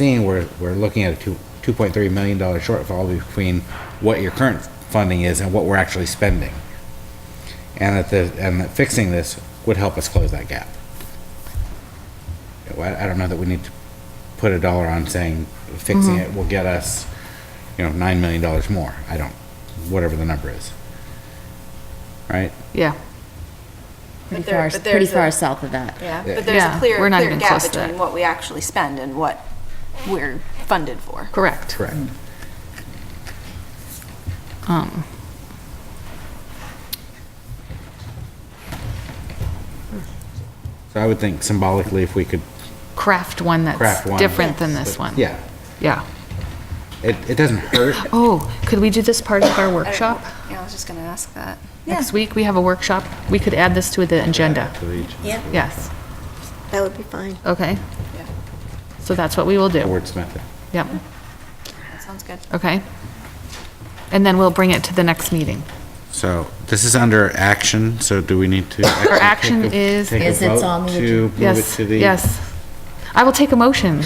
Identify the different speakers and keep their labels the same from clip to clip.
Speaker 1: seeing, we're, we're looking at a two, two point three million dollar shortfall between what your current funding is and what we're actually spending. And that the, and that fixing this would help us close that gap. Well, I I don't know that we need to put a dollar on saying fixing it will get us, you know, nine million dollars more. I don't, whatever the number is. Right?
Speaker 2: Yeah,
Speaker 3: But
Speaker 4: Pretty
Speaker 3: there-
Speaker 4: far,
Speaker 3: but
Speaker 4: pretty
Speaker 3: there's a-
Speaker 4: far south of that.
Speaker 3: Yeah,
Speaker 1: Yeah.
Speaker 3: but there's
Speaker 2: Yeah,
Speaker 3: a clear,
Speaker 2: we're not
Speaker 3: clear
Speaker 2: even
Speaker 3: gap
Speaker 2: close to that.
Speaker 3: between what we actually spend and what we're funded for.
Speaker 2: correct.
Speaker 1: Correct.
Speaker 2: Um,
Speaker 1: So I would think symbolically, if we could
Speaker 2: Craft one that's
Speaker 1: craft one.
Speaker 2: different than this one.
Speaker 1: Yeah,
Speaker 2: Yeah.
Speaker 1: it, it doesn't hurt.
Speaker 2: Oh, could we do this part of our workshop?
Speaker 3: Yeah, I was just gonna ask that.
Speaker 2: Next week, we have a workshop. We could add this to the agenda.
Speaker 5: Yeah,
Speaker 2: Yes,
Speaker 5: that would be fine.
Speaker 2: okay.
Speaker 3: Yeah.
Speaker 2: So that's what we will do.
Speaker 1: Wordsmith it.
Speaker 2: Yep,
Speaker 3: That sounds good.
Speaker 2: okay. And then we'll bring it to the next meeting.
Speaker 1: So this is under action, so do we need to? actually take
Speaker 2: action
Speaker 1: a-
Speaker 2: is-
Speaker 1: take a
Speaker 4: Is it's
Speaker 1: vote
Speaker 4: on the
Speaker 1: to
Speaker 4: agenda.
Speaker 1: move it
Speaker 2: Yes,
Speaker 1: to the-
Speaker 2: yes. I will take a motion.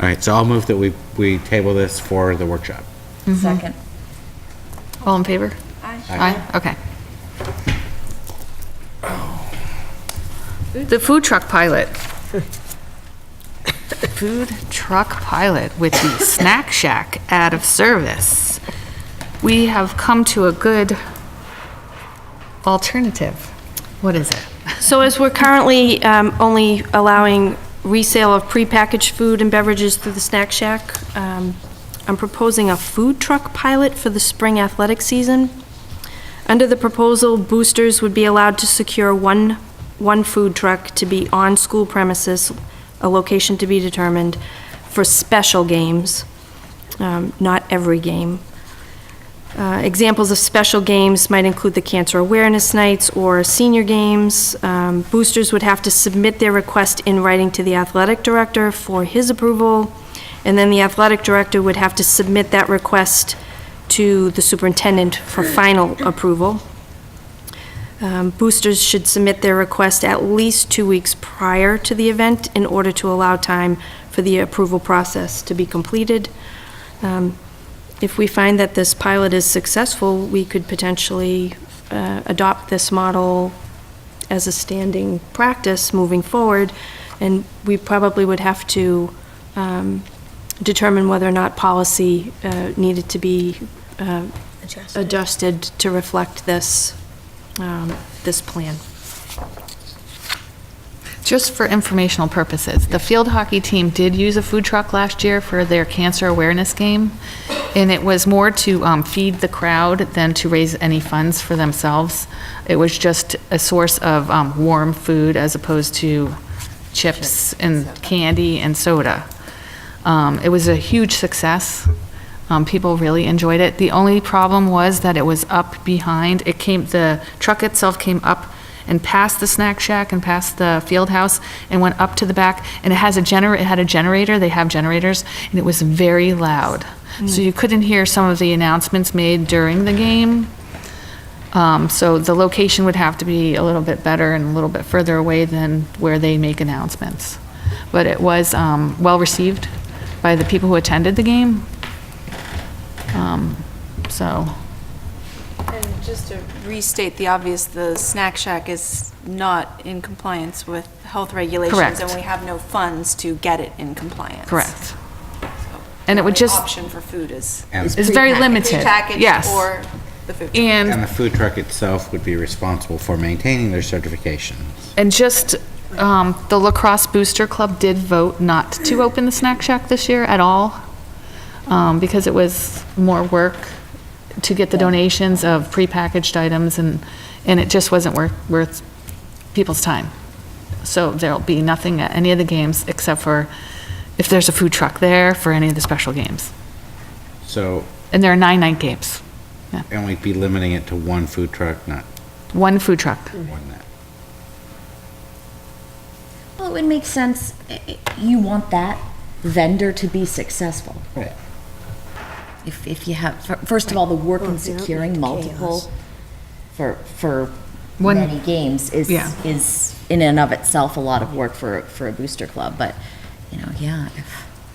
Speaker 1: All right, so I'll move that we, we table this for the workshop.
Speaker 2: Mm-hmm.
Speaker 4: Second.
Speaker 2: All in favor?
Speaker 3: Aye.
Speaker 2: Aye, okay. The food truck pilot. Food truck pilot with the Snack Shack out of service. We have come to a good alternative. What is it?
Speaker 6: So as we're currently um, only allowing resale of prepackaged food and beverages through the snack shack, um, I'm proposing a food truck pilot for the spring athletic season. Under the proposal, boosters would be allowed to secure one, one food truck to be on school premises, a location to be determined, for special games, um, not every game. Uh, Examples of special games might include the Cancer Awareness Nights or Senior Games. Um, Boosters would have to submit their request in writing to the athletic director for his approval, and then the athletic director would have to submit that request to the superintendent for final approval. Um, Boosters should submit their request at least two weeks prior to the event in order to allow time for the approval process to be completed. Um, If we find that this pilot is successful, we could potentially uh, adopt this model as a standing practice moving forward, and we probably would have to um, determine whether or not policy uh, needed to be uh,
Speaker 5: Adjusted.
Speaker 6: adjusted to reflect this, um, this plan.
Speaker 2: Just for informational purposes, the field hockey team did use a food truck last year for their cancer awareness game, and it was more to um, feed the crowd than to raise any funds for themselves. It was just a source of um, warm food as opposed to chips and candy and soda. Um, It was a huge success. Um, People really enjoyed it. The only problem was that it was up behind, it came, the truck itself came up and past the snack shack and past the field house and went up to the back. And it has a gener, it had a generator, they have generators, and it was very loud. So you couldn't hear some of the announcements made during the game. Um, So the location would have to be a little bit better and a little bit further away than where they make announcements. But it was um, well-received by the people who attended the game. Um, So,
Speaker 3: And just to restate the obvious, the snack shack is not in compliance with health regulations.
Speaker 2: Correct.
Speaker 3: And we have no funds to get it in compliance.
Speaker 2: correct.
Speaker 3: So
Speaker 2: And it would
Speaker 3: the
Speaker 2: just-
Speaker 3: Option for food is
Speaker 2: It's very limited,
Speaker 3: prepackaged
Speaker 2: yes.
Speaker 3: or the food. truck.
Speaker 2: And
Speaker 1: And the food truck itself would be responsible for maintaining their certification.
Speaker 2: And just, um, the Lacrosse Booster Club did vote not to open the snack shack this year at all, um, because it was more work to get the donations of prepackaged items, and, and it just wasn't worth, worth people's time. So there'll be nothing at any of the games, except for if there's a food truck there for any of the special games.
Speaker 1: So,
Speaker 2: And there are nine night games,
Speaker 1: and we'd be limiting it to one food truck, not
Speaker 2: one food truck.
Speaker 1: one that.
Speaker 4: Well, Oh, it would make sense, i- i- you want that vendor to be successful.
Speaker 1: Right.
Speaker 4: If, if you have, fir- first of all, the work in
Speaker 5: Well, that would
Speaker 4: securing
Speaker 5: be
Speaker 4: multiple
Speaker 5: chaos.
Speaker 4: for, for
Speaker 2: One-
Speaker 4: many games is,
Speaker 2: Yeah.
Speaker 4: is in and of itself a lot of work for, for a booster club, but, you know, yeah, if